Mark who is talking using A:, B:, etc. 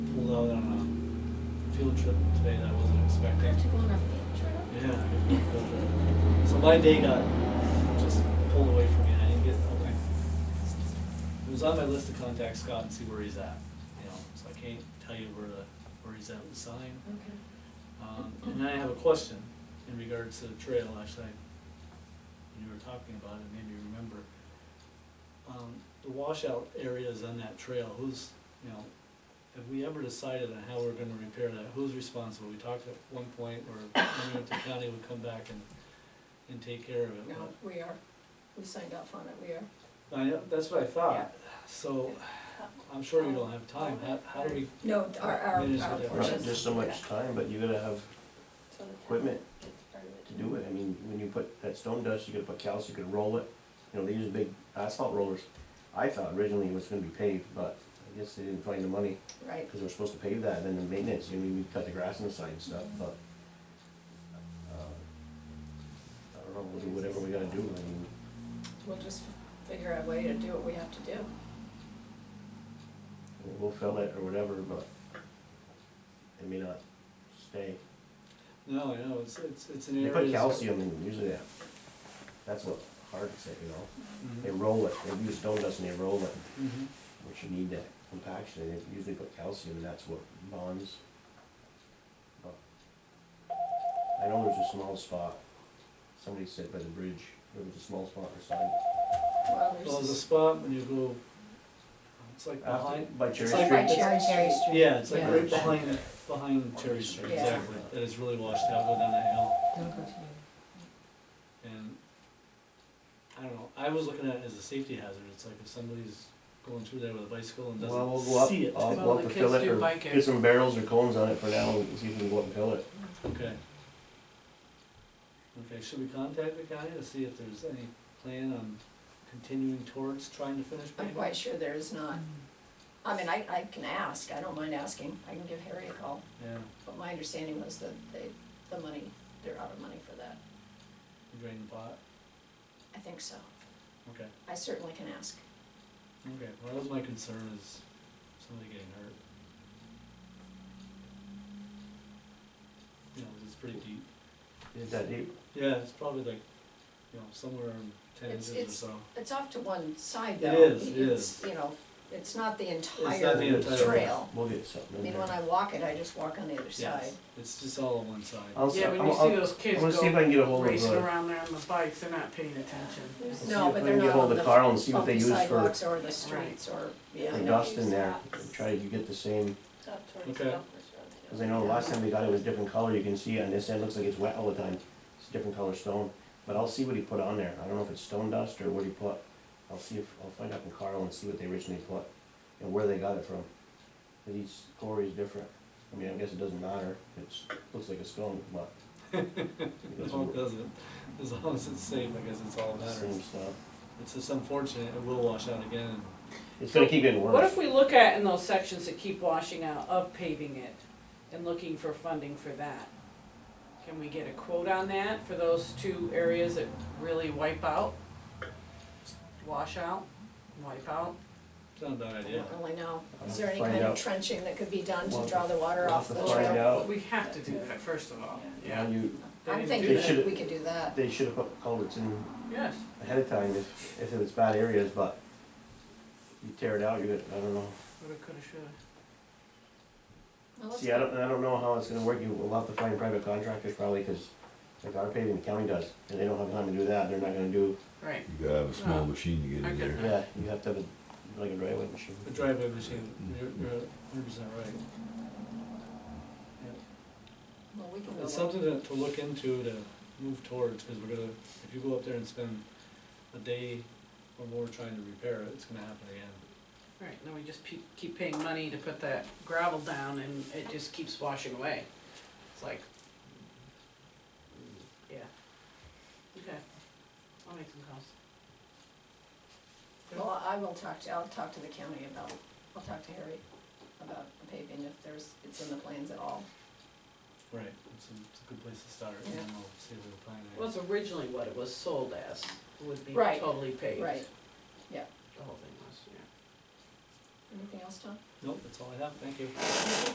A: saw it on a field trip today that I wasn't
B: You
A: expecting.
B: have to go on a field trip?
A: Yeah. So my day got just pulled away from me and I didn't get, okay. It was on my list to contact Scott and see where he's at, you know, so I can't tell you where the, where he's at with the sign.
B: Okay.
A: Um, and I have a question in regards to the trail, actually, I- when you were talking about it, maybe you remember. Um, the washout areas on that trail, who's, you know, have we ever decided on how we're gonna repair that, who's responsible? We talked at one point where Remington County would come back and, and take care of it,
B: No,
A: but,
B: we are, we signed off on it, we are.
A: I know, that's what I thought, so, I'm sure you don't have time, how, how do we,
B: No, our, our,
A: It is
B: our
A: what it
B: portion.
A: is.
C: Not just so much time, but you gotta have equipment to do it. I mean, when you put that stone dust, you gotta put calc, you could roll it. You know, they use big asphalt rollers. I thought originally it was gonna be paved, but I guess they didn't find the money,
B: Right,
C: because they were supposed to pave that, and then the maintenance, you know, we cut the grass on the side and stuff, but. uh, I don't know, we'll do whatever we gotta do, I mean,
B: we'll just figure out a way to do what we have to do.
C: we'll fill it or whatever, but it may not stay.
A: no, I know, it's, it's, it's an
C: They
A: area.
C: put
A: that's-
C: calcium in usually that, that's what hardens it, you know?
A: Mhm,
C: They roll it, they use stone dust and they roll it,
A: mhm.
C: which you need that compaction, and they usually put calcium, and that's what bonds. But I know there's a small spot, somebody said by the bridge, there was a small spot on the side.
B: Well,
A: Well, there's a
B: there's,
A: spot when you go, it's like behind,
C: After, by Cherry
A: It's like
C: Street,
A: right Cherry
D: Street.
A: yeah, it's like
D: Yeah.
A: right behind, behind Cherry Street,
B: Yeah.
A: exactly. That is really washed out, go down that hill, and, I don't know, I was looking at it as a safety hazard, it's like if somebody's going through there with a bicycle and
C: well, we'll go
A: doesn't
C: up,
A: see it.
C: I'll
D: Well,
C: go up
D: the
C: and fill
D: kids
C: it,
D: do
C: or
D: bike it.
C: get some barrels or cones on it for now, and see if we can go up and fill it.
A: Okay. Okay, should we contact the county to see if there's any plan on continuing towards trying to finish
B: I'm
A: paving?
B: quite sure there is not. I mean, I, I can ask, I don't mind asking, I can give Harry a call,
A: Yeah,
B: but my understanding was that they, the money, they're out of money for that.
A: drain the pot,
B: I think so,
A: okay,
B: I certainly can ask.
A: okay, well, that was my concern is somebody getting hurt. You know, 'cause it's pretty deep.
C: Is that deep?
A: Yeah, it's probably like, you know, somewhere around ten
B: It's-
A: inches or
B: it's-
A: so.
B: It's off to one side
A: It
B: though.
A: is, it
B: It's,
A: is.
B: You know, it's not the
A: the
B: entire
A: entire-
B: trail.
C: We'll get something
B: I
C: in
B: mean,
C: there.
B: when I walk it, I just walk on the other side.
A: Yes, it's just all on one side.
C: I'll, s-
D: Yeah, when
C: I'll-
D: you see
C: I'll-
D: those
C: I'm
D: kids
C: gonna see if I
D: go
C: can get a hold of.
D: racing
C: uh,
D: around there on the bikes, they're not paying attention.
C: Let's see
B: No,
C: if
B: but
C: we
B: they're
C: can get
B: not
C: hold
B: on
C: of
B: the,
C: Carl and see
B: on
C: what they
B: the
C: use for-
B: sidewalks or the streets or, yeah,
C: the
B: I know.
C: dust in there, and try to get the same,
A: Okay,
C: cause I know the last time we got it was different color, you can see on this end, looks like it's wet all the time, it's different color stone. But I'll see what he put on there, I don't know if it's stone dust or what he put, I'll see if, I'll find out from Carl and see what they originally put, and where they got it from. Cause each quarry is different, I mean, I guess it doesn't matter, it's, looks like a stone, but. It's
A: no, it doesn't, as long as it's safe, I guess it's all that
C: the same
A: matters.
C: stuff,
A: It's just unfortunate, it will wash out again, and
C: it's gonna keep getting
D: What
C: worse,
D: if we look at in those sections that keep washing out, of paving it and looking for funding for that? Can we get a quote on that for those two areas that really wipe out? Wash out, wipe out?
A: it's not a bad
B: I
A: idea.
B: don't really know.
C: I'll
B: Is there any
C: find
B: kind of
C: out.
B: trenching that could be done
C: We'll-
B: to draw the water
C: we'll
B: off the
C: have
B: trail?
C: to find out.
D: We have to do that, first of all,
C: Now
D: yeah.
C: you,
D: They
B: I'm
D: didn't
B: thinking
D: do
C: They
B: that
C: should've-
B: we could do that.
C: they should've put culverts in
D: Yes,
C: ahead of time if, if it's bad areas, but you tear it out, you're gonna, I don't know.
D: woulda, coulda, shoulda.
B: Well, let's-
C: See, I don't, I don't know how it's gonna work, you will have to find private contractors probably, cause like our paving, the county does, and they don't have time to do that, they're not gonna do,
D: Right,
E: You gotta have a small
D: Oh.
E: machine to get
D: I
E: in
D: get
E: there.
D: that.
C: yeah, you have to have a, like a driveway machine.
A: The driveway machine, you're, you're hundred percent right. Yeah.
B: Well, we can go
A: It's
B: look.
A: something to, to look into, to move towards, cause we're gonna, if you go up there and spend a day or more trying to repair it, it's gonna happen again.
D: right, then we just pe- keep paying money to put that gravel down and it just keeps washing away. It's like, yeah. Okay, I'll make some calls.
B: Well, I will talk to, I'll talk to the county about, I'll talk to Harry about the paving if there's, it's in the plans at all.
A: Right, it's a, it's a good place to start, and then we'll see if we can find it.
D: Well, it's originally what it was sold as, would be
B: Right,
D: totally paved.
B: right. Yeah.
D: The whole thing was, yeah.
B: Anything else, Tom?
A: Nope, that's all I have, thank you.